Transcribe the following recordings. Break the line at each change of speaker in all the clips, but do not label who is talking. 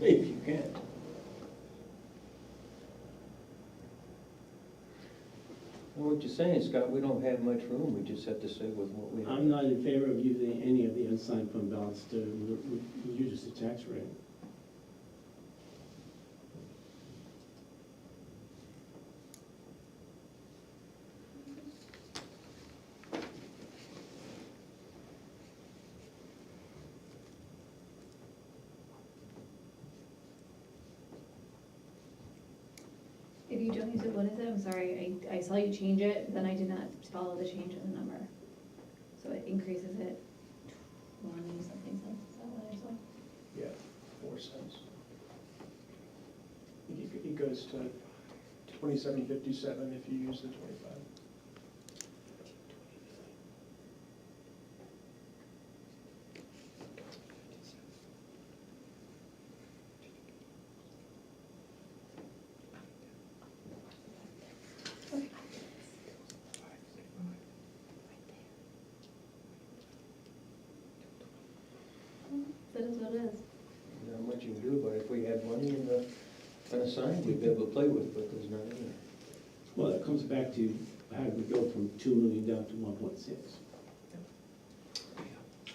Maybe you can.
Well, what you're saying, Scott, we don't have much room, we just have to stay with what we have.
I'm not in favor of using any of the unassigned fund balance to re- re- reduce the tax rate.
If you don't use it, what is it? I'm sorry, I, I saw you change it, then I did not follow the change in the number. So it increases it twenty something cents, is that what I saw?
Yeah, four cents. It g- It goes to twenty-seven fifty-seven if you use the twenty-five.
That is what it is.
Not much you can do, but if we had money uh, in the, unassigned, we'd be able to play with, but there's none in there.
Well, that comes back to how do we go from two million down to one point six?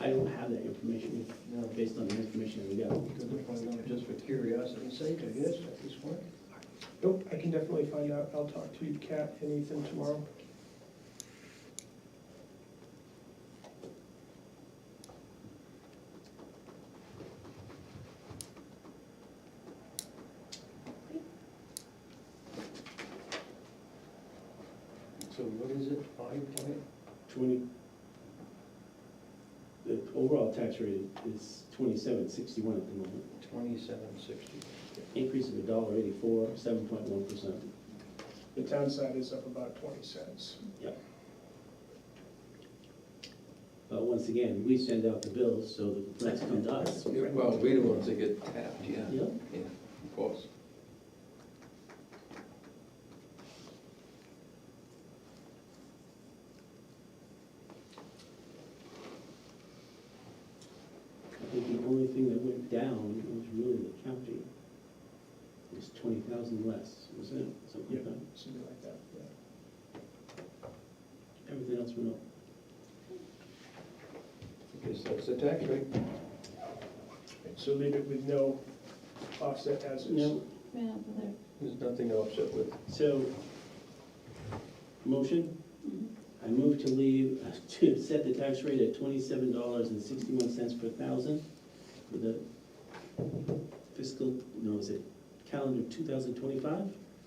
I don't have that information,
No,
based on the information we got.
because we're probably gonna- just for curiosity's sake, I guess, at this point.
Nope, I can definitely find out. I'll talk to Kat and Ethan tomorrow.
So what is it, five point?
Twenty, the overall tax rate is twenty-seven sixty-one at the moment,
Twenty-seven sixty.
increase of a dollar eighty-four, seven point one percent.
The town side is up about twenty cents.
But once again, we send out the bills, so the complaints come to us.
Well, we the ones that get tapped, yeah,
Yeah.
yeah, of course.
I think the only thing that went down was really the county. It was twenty thousand less, was it, something like that?
Something like that, yeah.
Everything else went up.
Because that's the tax rate.
And So leave it with no offset as is.
No,
Right up there.
There's nothing to offset with.
so, motion,
Mm-hmm.
I move to leave, to set the tax rate at twenty-seven dollars and sixty-one cents per thousand for the fiscal, no, is it calendar two thousand twenty-five,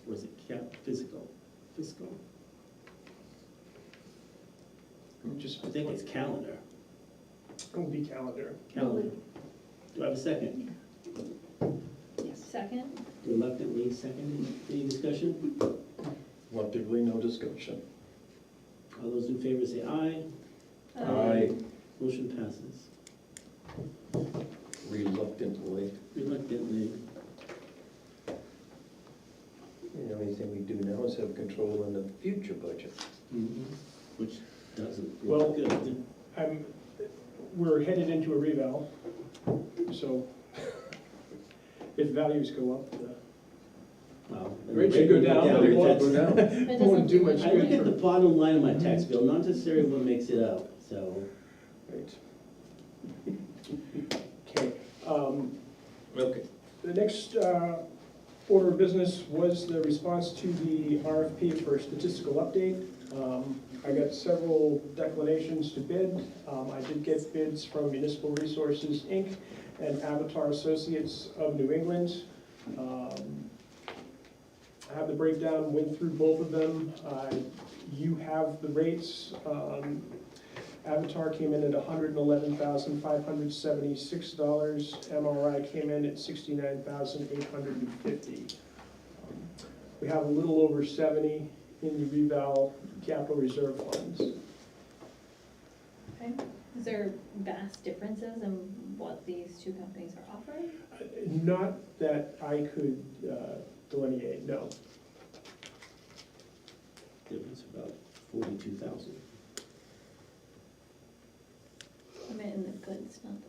or is it cap, physical, fiscal?
Just,
I think it's calendar,
it'll be calendar.
calendar. Do I have a second?
Second?
Reluctantly seconded. Any discussion?
Lumpically, no discussion.
All those in favor say aye.
Um,
Aye.
Motion passes.
Reluctantly.
Reluctantly,
You know, anything we do now is have control in the future budget.
Mm-hmm. which doesn't
Well-
look good.
I'm, we're headed into a reval, so if values go up, the
Wow.
Rates should go down, but they won't.
That's-
It doesn't
Won't do
seem
much
like-
I look at the bottom line of my tax bill, not necessarily what makes it up, so.
Right. Okay, um,
Okay.
the next, uh, order of business was the response to the RFP for statistical update. Um, I got several declinations to bid. Um, I did get bids from Municipal Resources, Inc. and Avatar Associates of New England. Um, I have the breakdown, went through both of them. Uh, you have the rates, um, Avatar came in at hundred and eleven thousand five hundred seventy-six dollars. MRI came in at sixty-nine thousand eight hundred and fifty. We have a little over seventy in the reval capital reserve funds.
Okay. Is there vast differences in what these two companies are offering?
Uh, Not that I could uh, delineate, no.
Difference about forty-two thousand.
I meant in the goods, not the